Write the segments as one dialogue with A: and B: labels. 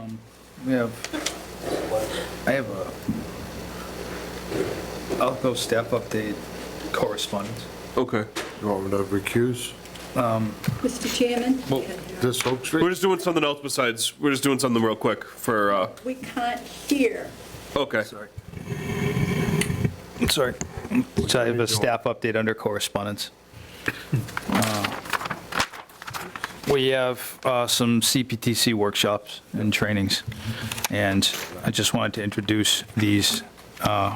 A: Um, we have, I have a, I'll go step update correspondence.
B: Okay.
C: You want me to recuse
D: Mr. Chairman?
B: Well-
C: this Oak
B: We're
C: Street?
B: just doing something else besides, we're just doing something real quick for, uh,
D: We can't hear.
B: okay.
A: Sorry. So I have a staff update under correspondence. Uh, We have uh, some CPTC workshops and trainings, and I just wanted to introduce these uh,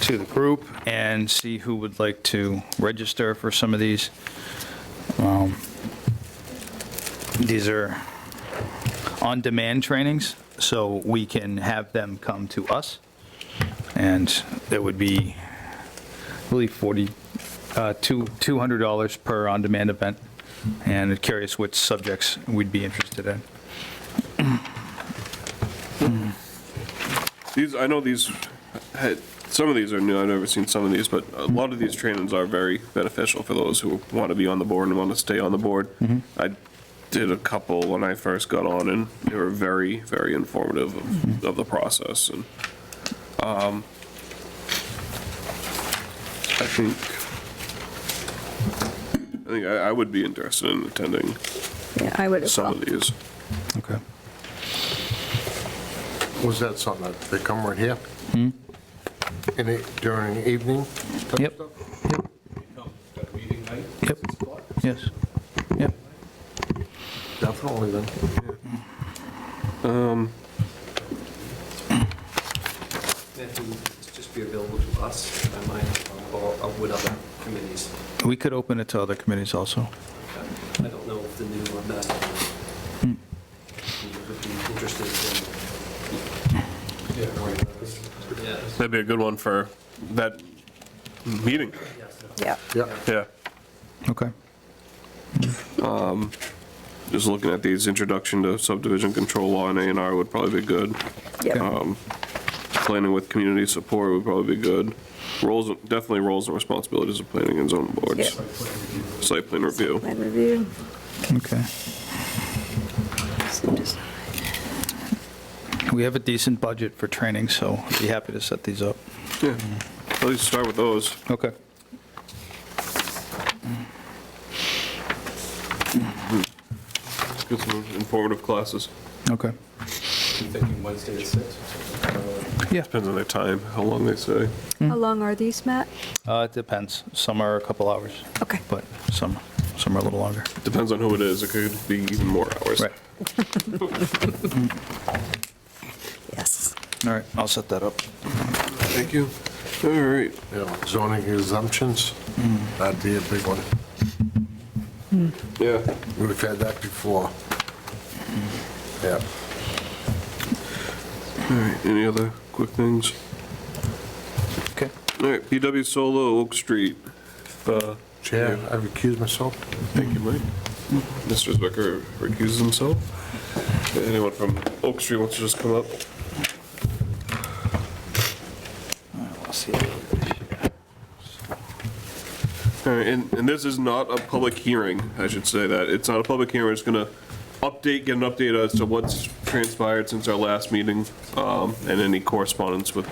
A: to the group and see who would like to register for some of these. Um, These are on-demand trainings, so we can have them come to us. And it would be, I believe, 40, uh, two- $200 per on-demand event. And I'm curious which subjects we'd be interested in.
B: These, I know these, had- some of these are new, I've never seen some of these, but a lot of these trainings are very beneficial for those who want to be on the board and want to stay on the board. I did a couple when I first got on, and they were very, very informative of- of the process, and, um, I think, I think I I would be interested in attending
D: Yeah, I would as
B: some
D: well.
B: of these.
A: Okay.
C: Was that something that they come right here? In the- During the evening? type
A: Yep.
C: stuff?
A: Yep. Yes. Yep.
C: Definitely then.
E: That would just be available to us, I might, or or would other committees.
A: We could open it to other committees also.
E: I don't know if the new uh, master plan
F: Hmm.
E: would be interested in. Yeah.
B: That'd be a good one for that meeting,
D: Yeah.
C: Yeah,
B: yeah.
A: Okay.
B: just looking at these, introduction to subdivision control law and A and R would probably be good. Um,
D: Yeah.
B: Planning with community support would probably be good. Roles, definitely roles and responsibilities of planning and zoning boards. Site plan review.
D: Plan review.
A: Okay. We have a decent budget for training, so I'd be happy to set these up.
B: Yeah, at least start with those.
A: Okay.
B: Get some informative classes.
A: Okay.
E: Thinking Wednesday at six.
A: Yeah.
B: Depends on their time, how long they say.
G: How long are these, Matt?
A: Uh, It depends. Some are a couple hours,
G: Okay.
A: but some, some are a little longer.
B: Depends on who it is. It could be even more hours.
A: Right.
G: Yes.
A: All right, I'll set that up.
B: Thank you. All right.
C: yeah, zoning exemptions, that'd be a big one.
B: Yeah.
C: We've had that before. Yeah.
B: All right. Any other quick things?
A: Okay.
B: All right. PW Solo, Oak Street. If, uh,
C: Chair, I recuse myself.
B: Thank you, Mike. Mr. Zwicker recuses himself. Anyone from Oak Street wants to just come up? All right, and, and this is not a public hearing, I should say that. It's not a public hearing, it's gonna update, get an update as to what's transpired since our last meeting, um, and any correspondence with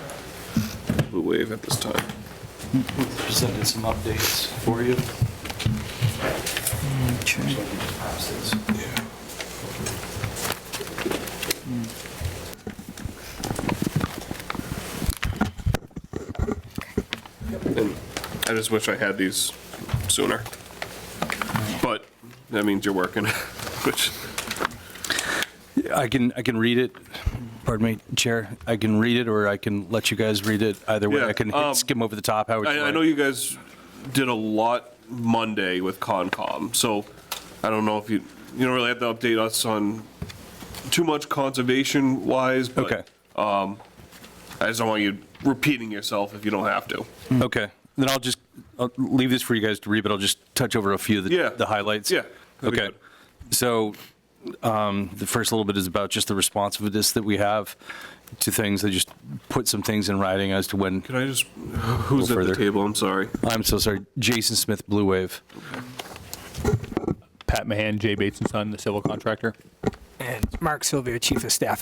B: Blue Wave at this time.
E: Presented some updates for you.
F: Hmm,
B: And I just wish I had these sooner. But that means you're working, which,
F: I can, I can read it, pardon me, Chair, I can read it, or I can let you guys read it, either way,
B: Yeah,
F: I can hit-
B: um,
F: skim over the top, Howard.
B: I, I know you guys did a lot Monday with Concom, so I don't know if you, you don't really have to update us on too much conservation wise,
F: Okay,
B: but um, I just don't want you repeating yourself if you don't have to.
F: okay, then I'll just, I'll leave this for you guys to read, but I'll just touch over a few of
B: Yeah.
F: the, the highlights.
B: Yeah, that'd be
F: Okay,
B: good.
F: so, um, the first little bit is about just the responsiveness that we have to things, I just put some things in writing as to when,
B: Can I just, who's at the
F: further.
B: table? I'm sorry.
F: I'm so sorry, Jason Smith, Blue Wave.
H: Pat Mahan, Jay Bates and Son, the civil contractor.
I: and Mark Sylvia, Chief of Staff